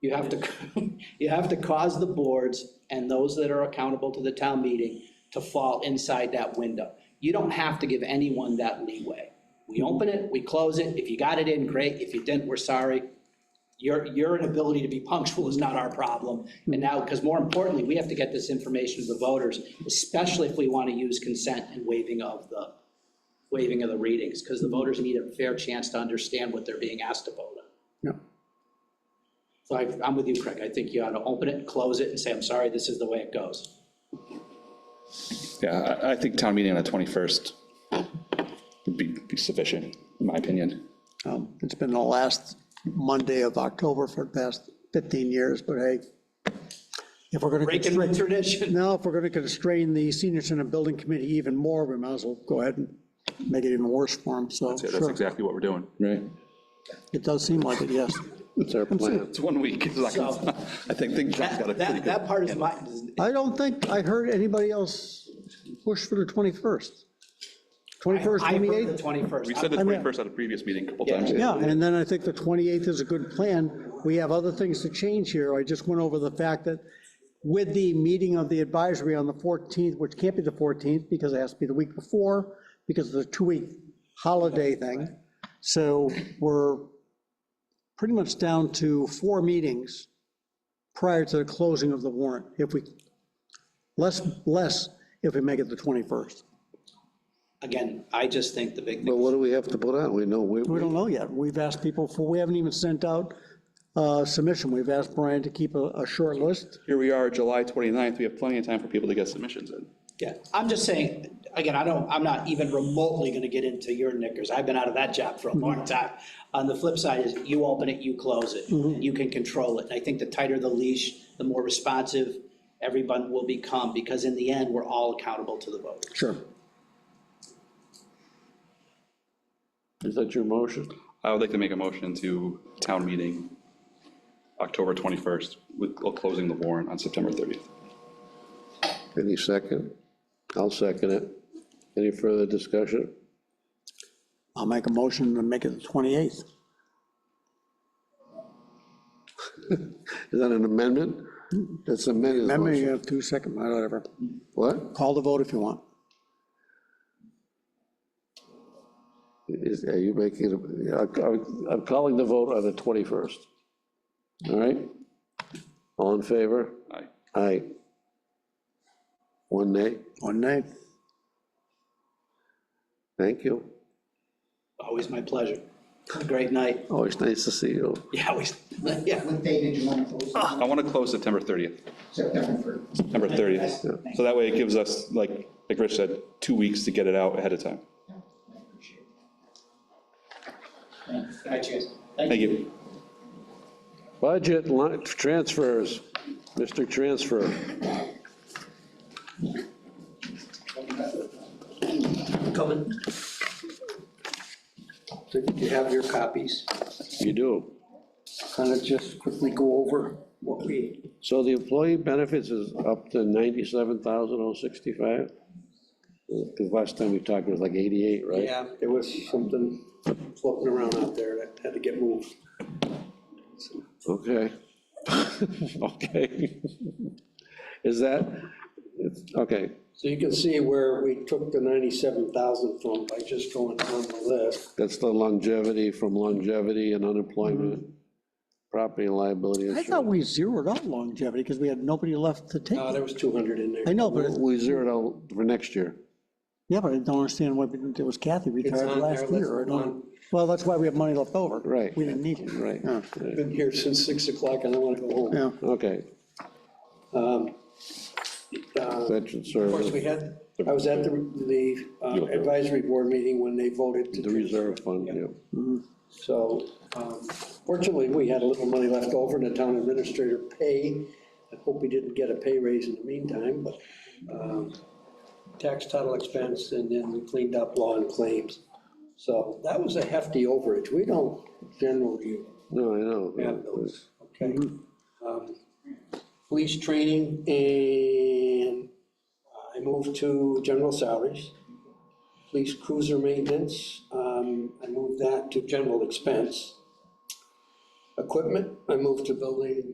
You have to, you have to cause the boards and those that are accountable to the town meeting to fall inside that window. You don't have to give anyone that leeway. We open it, we close it, if you got it in, great, if you didn't, we're sorry. Your, your inability to be punctual is not our problem. And now, because more importantly, we have to get this information to the voters, especially if we want to use consent and waiving of the, waiving of the readings, because the voters need a fair chance to understand what they're being asked to vote on. Yeah. So I, I'm with you, Craig. I think you ought to open it, close it, and say, I'm sorry, this is the way it goes. Yeah, I, I think town meeting on the 21st would be be sufficient, in my opinion. Um, It's been the last Monday of October for the past 15 years, but hey, if we're going to Breaking constrain, the tradition. now, if we're going to constrain the senior center building committee even more, we might as well go ahead and make it even worse for them, so. Yeah, that's sure. exactly what we're doing. Right. It does seem like it, yes. It's our plan. It's one week. it's not gonna- I think, think John's got a pretty That, that, good. that part is my, I don't think I heard anybody else push for the 21st. 21st, I heard the 28th? We 21st. said the I mean- 21st at a previous meeting a couple Yeah. times. Yeah, and then I think the 28th is a good plan. We have other things to change here. I just went over the fact that with the meeting of the advisory on the 14th, which can't be the 14th because it has to be the week before, because of the two-week holiday thing. So we're pretty much down to four meetings prior to the closing of the warrant, if we, less, less if we make it the 21st. Again, I just think the big But thing, what do we have to put on? We know, we, We don't know yet. We've asked people for, we haven't even sent out a submission. We've asked Brian to keep a, a short list. Here we are, July 29th, we have plenty of time for people to get submissions in. yeah, I'm just saying, again, I don't, I'm not even remotely gonna get into your knickers. I've been out of that job for Mm-hmm. a long time. On the flip side is you open it, you close it, Mm-hmm. you can control it. And I think the tighter the leash, the more responsive everyone will become, because in the end, we're all accountable to the voters. Sure. is that your motion? I would like to make a motion to town meeting, October 21st, with closing the warrant on September 30th. Any second? I'll second it. Any further discussion? I'll make a motion to make it the 28th. Is that an amendment? That's amended Remember, you motion. have two seconds, whatever. What? Call the vote if you want. Is, are you making, a- I'm I'm calling the vote on the 21st. All right? All in favor? Aye. Aye. One nay? One nay. Thank you. Always my pleasure. Great night. Always nice to see you. Yeah, we, yeah. What day did you want to close? I want to close September 30th, September September 30th. So that way it gives us, like, like Rich said, two weeks to get it out ahead of time. 1st. All right, cheers. Thank you. Thank you. Budget line- transfers, Mr. Transfer. coming. So you have your copies. You do. Kind of just quickly go over what we, So the employee benefits is up to 97,065? The last time we talked was like 88, right? yeah, there was something floating around out there that had to get moved. Okay. Okay. Is that, it's, okay, So you can see where we took the ninety-seven thousand from by just going down the list. that's the longevity from longevity and unemployment, Mm-hmm. property and liability I thought insurance. we zeroed out longevity because we had nobody left to take. Uh, it. there was two hundred in there. I know, but, it- We zeroed out for next year. yeah, but I don't understand why we didn't- it was Kathy It's retired on there, last let's year. I move don't- Well, that's why we have money left over. Right. We didn't need it. Right. Yeah. I've Been here since six o'clock and I want to go home. Yeah. Okay, Uh, veteran Um, Of course, we service, had, I was at the, the uh, advisory board meeting when they voted to. the reserve fund, yeah. So um, fortunately, we had a little money left over in the town administrator pay. I hope we didn't get a pay raise in the meantime, but um, tax title expense and then we cleaned up law and claims. So that was a hefty overage. We don't generally No, I know. have those, okay? Um, Police training and I moved to general salaries. Police cruiser maintenance, um, I moved that to general expense. Equipment, I moved to building